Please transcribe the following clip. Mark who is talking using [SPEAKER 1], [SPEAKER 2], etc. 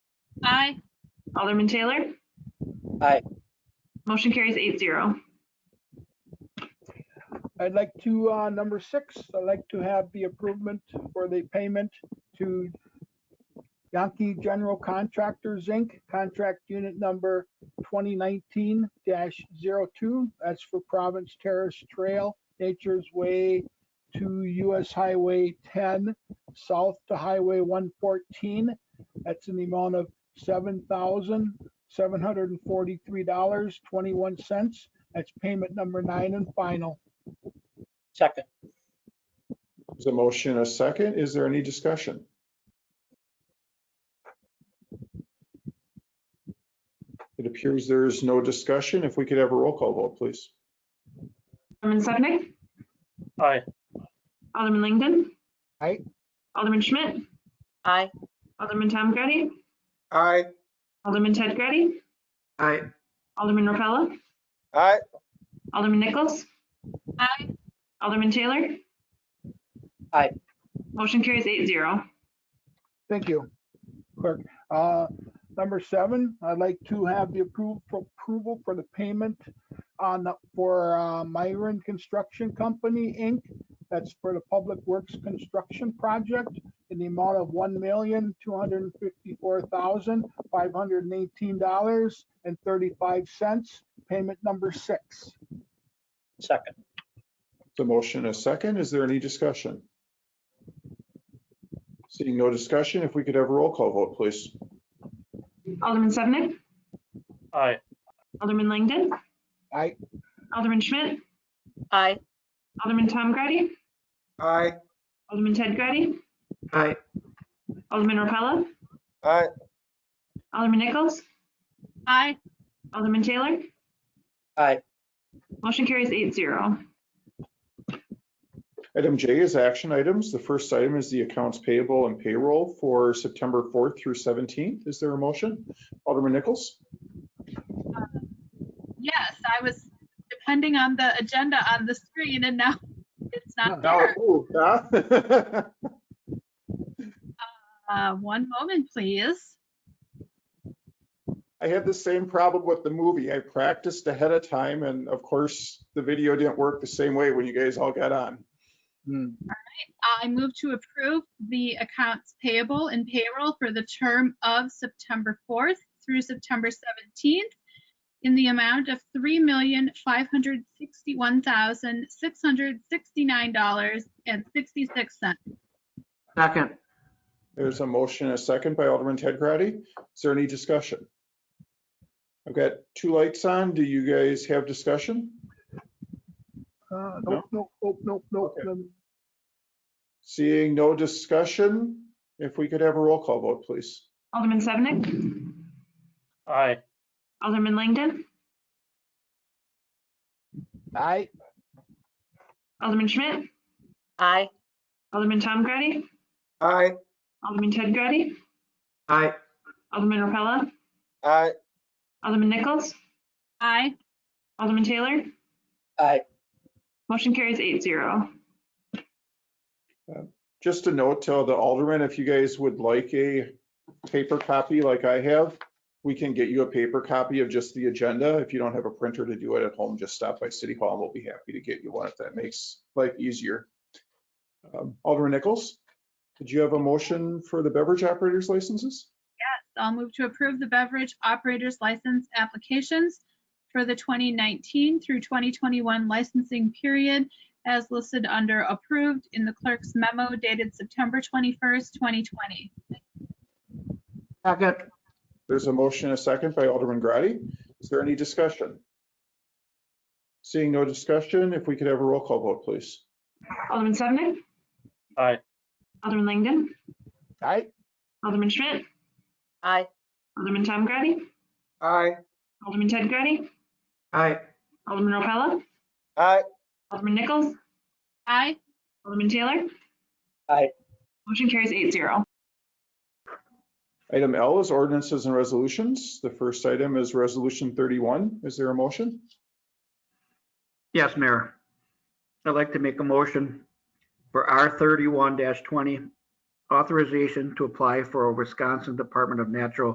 [SPEAKER 1] Aye.
[SPEAKER 2] Alderman Taylor?
[SPEAKER 3] Aye.
[SPEAKER 2] Motion carries eight zero.
[SPEAKER 4] I'd like to, uh, number six, I'd like to have the improvement for the payment to Yankee General Contractors, Inc., contract unit number 2019-02. That's for Province Terrace Trail, Nature's Way to US Highway 10, south to Highway 114. That's an amount of $7,743.21. That's payment number nine and final.
[SPEAKER 3] second,
[SPEAKER 5] There's a motion, and a second. Is there any discussion? It appears there is no discussion. If we could have a roll call vote, please.
[SPEAKER 2] Alderman Sevenick?
[SPEAKER 3] aye,
[SPEAKER 2] Alderman Langdon?
[SPEAKER 4] Aye.
[SPEAKER 2] Alderman Schmidt?
[SPEAKER 1] Aye.
[SPEAKER 2] Alderman Tom Grady?
[SPEAKER 6] Aye.
[SPEAKER 2] Alderman Ted Grady?
[SPEAKER 6] Aye.
[SPEAKER 2] Alderman Repella?
[SPEAKER 6] Aye.
[SPEAKER 2] Alderman Nichols?
[SPEAKER 1] Aye.
[SPEAKER 2] Alderman Taylor?
[SPEAKER 3] Aye.
[SPEAKER 2] Motion carries eight zero.
[SPEAKER 4] Thank you, clerk. Uh, Number seven, I'd like to have the approval, approval for the payment on, the- for uh, Myron Construction Company, Inc. That's for the Public Works Construction Project in the amount of one million, two hundred and fifty-four thousand, five hundred and eighteen dollars and thirty-five cents, payment number six.
[SPEAKER 3] second,
[SPEAKER 5] The motion, and a second. Is there any discussion? Seeing no discussion, if we could have a roll call vote, please.
[SPEAKER 2] Alderman Sevenick?
[SPEAKER 3] aye,
[SPEAKER 2] Alderman Langdon?
[SPEAKER 4] Aye.
[SPEAKER 2] Alderman Schmidt?
[SPEAKER 1] Aye.
[SPEAKER 2] Alderman Tom Grady?
[SPEAKER 6] Aye.
[SPEAKER 2] Alderman Ted Grady?
[SPEAKER 6] Aye.
[SPEAKER 2] Alderman Repella?
[SPEAKER 6] Aye.
[SPEAKER 2] Alderman Nichols?
[SPEAKER 1] Aye.
[SPEAKER 2] Alderman Taylor?
[SPEAKER 3] aye,
[SPEAKER 2] Motion carries eight zero.
[SPEAKER 5] Item J is action items. The first item is the accounts payable and payroll for September 4th through 17th. Is there a motion? Alderman Nichols?
[SPEAKER 1] Yes, I was depending on the agenda on the screen and now it's not
[SPEAKER 5] Now
[SPEAKER 1] there.
[SPEAKER 5] it moved, huh?
[SPEAKER 1] Uh, one moment, please.
[SPEAKER 5] I had the same problem with the movie. I practiced ahead of time and of course, the video didn't work the same way when you guys all got on.
[SPEAKER 4] Hmm,
[SPEAKER 1] Uh, I move to approve the accounts payable and payroll for the term of September 4th through September 17th in the amount of $3,561,669.66.
[SPEAKER 6] Second.
[SPEAKER 5] There's a motion, and a second by Alderman Ted Grady. Is there any discussion? I've got two lights on. Do you guys have discussion?
[SPEAKER 4] uh, Nope, nope, nope, nope, nope.
[SPEAKER 5] Okay.
[SPEAKER 4] um,
[SPEAKER 5] Seeing no discussion, if we could have a roll call vote, please.
[SPEAKER 2] Alderman Sevenick?
[SPEAKER 3] aye,
[SPEAKER 2] Alderman Langdon?
[SPEAKER 4] Aye,
[SPEAKER 2] Alderman Schmidt?
[SPEAKER 1] Aye.
[SPEAKER 2] Alderman Tom Grady?
[SPEAKER 6] Aye.
[SPEAKER 2] Alderman Ted Grady?
[SPEAKER 6] Aye.
[SPEAKER 2] Alderman Repella?
[SPEAKER 6] Aye.
[SPEAKER 2] Alderman Nichols?
[SPEAKER 1] Aye.
[SPEAKER 2] Alderman Taylor?
[SPEAKER 3] aye,
[SPEAKER 2] Motion carries eight zero.
[SPEAKER 5] Just a note to the alderman, if you guys would like a paper copy like I have, we can get you a paper copy of just the agenda. If you don't have a printer to do it at home, just stop by City Hall and we'll be happy to get you one if that makes life easier. Um, Alderman Nichols, did you have a motion for the beverage operators licenses?
[SPEAKER 1] I'll move to approve the beverage operators license applications for the 2019 through 2021 licensing period as listed under approved in the clerk's memo dated September 21st, 2020.
[SPEAKER 6] Second.
[SPEAKER 5] There's a motion, and a second by Alderman Grady. Is there any discussion? Seeing no discussion, if we could have a roll call vote, please.
[SPEAKER 2] Alderman Sevenick?
[SPEAKER 3] aye,
[SPEAKER 2] Alderman Langdon?
[SPEAKER 4] aye,
[SPEAKER 2] Alderman Schmidt?
[SPEAKER 1] Aye.
[SPEAKER 2] Alderman Tom Grady?
[SPEAKER 6] Aye.
[SPEAKER 2] Alderman Ted Grady?
[SPEAKER 6] Aye.
[SPEAKER 2] Alderman Repella?
[SPEAKER 6] Aye.
[SPEAKER 2] Alderman Nichols?
[SPEAKER 1] Aye.
[SPEAKER 2] Alderman Taylor?
[SPEAKER 3] Aye.
[SPEAKER 2] Motion carries eight zero.
[SPEAKER 5] Item L is ordinances and resolutions. The first item is Resolution 31. Is there a motion?
[SPEAKER 7] Yes, Mayor. I'd like to make a motion for R thirty-one twenty, authorization to apply for a Wisconsin Department of Natural